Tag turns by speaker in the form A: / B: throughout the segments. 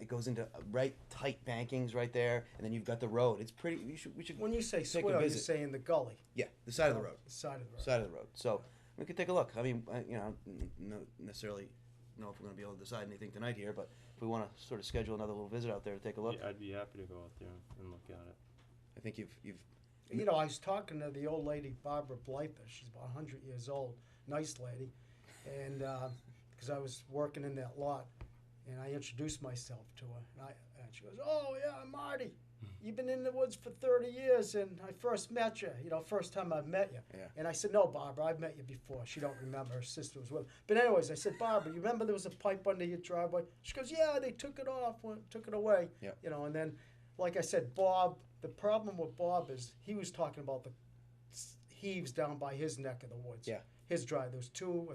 A: It goes into uh, right tight bankings right there, and then you've got the road. It's pretty. You should, we should.
B: When you say
A: take a
B: swale, you're
A: visit.
B: saying the gully.
A: yeah, the side of the road.
B: Side of the road.
A: Side of the road. So we could take a look. I mean, I- you know, n- no necessarily know if we're going to be able to decide anything tonight here, but if we want to sort of schedule another little visit out there to take a look,
C: Yeah, I'd be happy to go out there and look at it.
A: I think you've you've
B: You know, I was talking to the old lady, Barbara Blyther. She's about 100 years old, nice lady. And because I was working in that lot, and I introduced myself to her. And, I, and she goes, Oh, yeah, I'm Marty.
A: Hmm.
B: You've been in the woods for 30 years, and I first met you, you know, first time I met you.
A: Yeah.
B: And I said, No, Barbara, I've met you before. She don't remember. Her sister was with her. But, anyways, I said, Barbara, you remember there was a pipe under your driveway? She goes, Yeah, they took it off, went- took it away.
A: Yeah.
B: You know, and then like I said, Bob, the problem with Bob is he was talking about the s- heaves down by his neck of the woods.
A: Yeah.
B: His drive, there was two uh,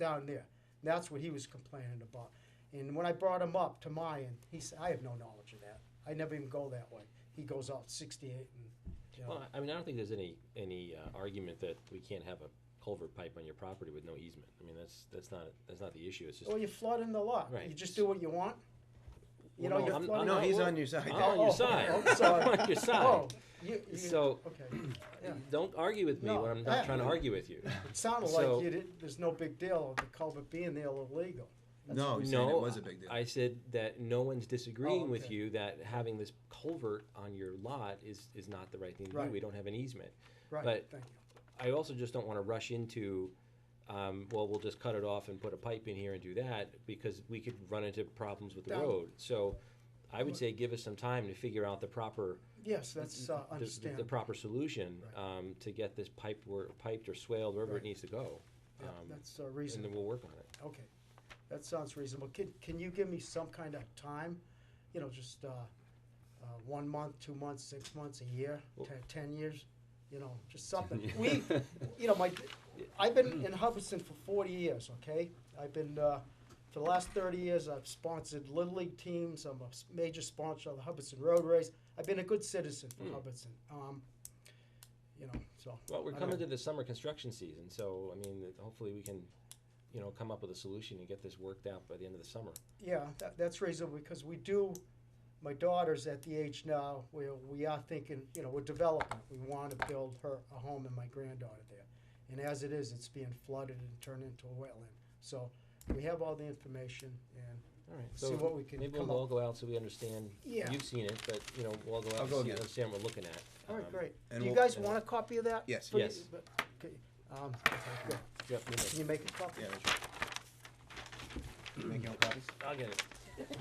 B: down there. And that's what he was complaining about. And when I brought him up to Mayan, he said, I have no knowledge of that. I never even go that way. He goes out 68 and, you know,
D: Well, I- I mean, I don't think there's any, any uh, argument that we can't have a culvert pipe on your property with no easement. I mean, that's, that's not, that's not the issue, it's just.
B: well, you flood in "Oh, the lot.
D: Right.
B: You just do what you want. You know,
D: Well,
B: you're
D: I'm-
B: flooding
A: no,
B: the
A: he's
B: lot.
A: on your side.
D: I'm on your
B: Oh,
D: side,
B: oh,
D: I'm
B: sorry.
D: on your
B: Oh,
D: side.
B: you, you,
D: So,
B: okay. yeah.
D: don't argue with me
B: No,
D: when I'm
B: I-
D: not trying to argue with you.
B: It sounded
D: So-
B: like you did, there's no big deal of the culvert being there illegal.
A: no. You're saying it
D: No,
A: was a big deal.
D: I said that no one's disagreeing with
B: Oh, okay.
D: you that having this culvert on your lot is, is not the right thing to do.
B: Right.
D: We don't have an easement.
B: Right,
D: But-
B: thank you.
D: I also just don't want to rush into, um, well, we'll just cut it off and put a pipe in here and do that because we could run into problems with the
B: Down-
D: road. So I would say give us some time to figure out the proper,
B: Yes, that's uh,
D: the- the, the
B: understandable.
D: proper solution,
B: Right.
D: um, to get this piped where, piped or swaled wherever
B: Right.
D: it needs to go.
B: Yeah,
D: Um,
B: That's uh,
D: And then
B: reasonable.
D: we'll work on it.
B: Okay, that sounds reasonable. Can, can you give me some kind of time? You know, just uh, uh, one month, two months, six months, a year,
D: Well-
B: ten, ten years? You know, just something. We, you know, my, I've been in Hubbardston for forty years, okay? I've been, uh, for the last thirty years, I've sponsored Little League teams. I'm a s- major sponsor of the Hubbardston Road Race. I've been a good citizen for
D: Mm.
B: Hubbardston. Um, You know, so.
D: Well, we're
B: I
D: coming
B: don't-
D: to the summer construction season, so, I mean, that hopefully we can, you know, come up with a solution and get this worked out by the end of the summer.
B: Yeah, that, that's reasonable because we do, my daughter's at the age now where we are thinking, you know, we're developing. We want to build her a home and my granddaughter there. And as it is, it's being flooded and turned into a wetland. So we have all the information and
D: All right.
B: see
D: So
B: what we can
D: maybe
B: come
D: we'll all
B: up.
D: go out so we understand.
B: Yeah.
D: You've seen it, but, you know, we'll all go
A: I'll
D: out
A: go
D: and see-
A: again.
D: understand what we're looking at.
B: All right,
D: Um,
B: great.
A: and
B: Do you
A: we'll-
B: guys want a copy of that?
A: Yes.
B: For you-
D: Yes.
B: but- okay, um, okay, good.
D: Jeff, you
B: Can
D: may-
B: you make a copy?
A: yeah, that's right. Make your own copies.
D: I'll get it.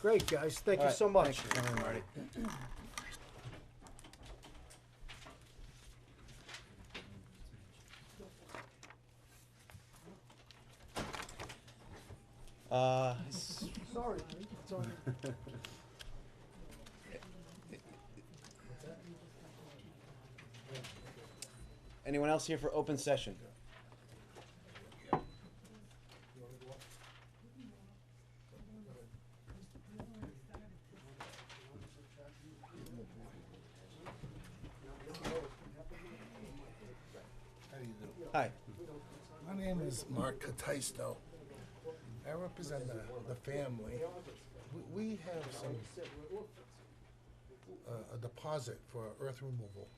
B: Great, guys. Thank
A: All
B: you
A: right,
B: so much.
A: Thanks for coming, Marty. Uh, s-
B: Sorry, it's on.
A: anyone else here for open session?
E: How do you do?
A: Hi.
E: My name is Mark Cataisto. I represent the, the family. W- We have some, uh, a deposit for earth removal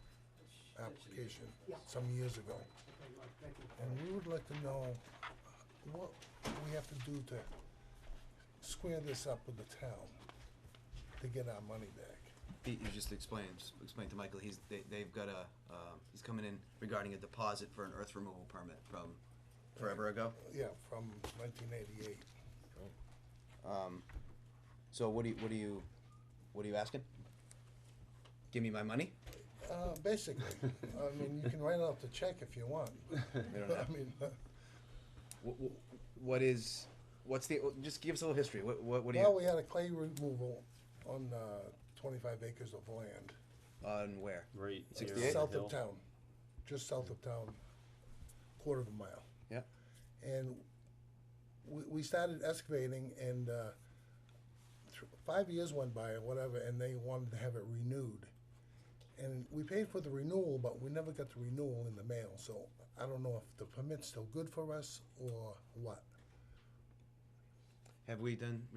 E: application some years ago. And we would like to know what we have to do to square this up with the town to get our money back.
A: Pete, you just explained, explained to Michael, he's, they, they've got a, uh, he's coming in regarding a deposit for an earth removal permit from forever ago.
E: Yeah, from nineteen eighty-eight.
A: Um, so what do you, what do you, what are you asking? Give me my money?
E: Uh, basically, I mean, you can write off the check if you want.
A: We don't
E: I
A: have-
E: mean,
A: Wh- wh- What is, what's the, just give us a little history, what, what, what do
E: well, we
A: you,
E: had a clay removal on uh, 25 acres of land,
A: on where?
C: Right. here on
A: 68?
C: the
E: south
C: hill.
E: of town, just south of town, quarter of a mile.
A: Yeah.
E: And we, we started excavating, and uh, th- five years went by or whatever, and they wanted to have it renewed. And we paid for the renewal, but we never got the renewal in the mail. So I don't know if the permit's still good for us or what.
A: Have we done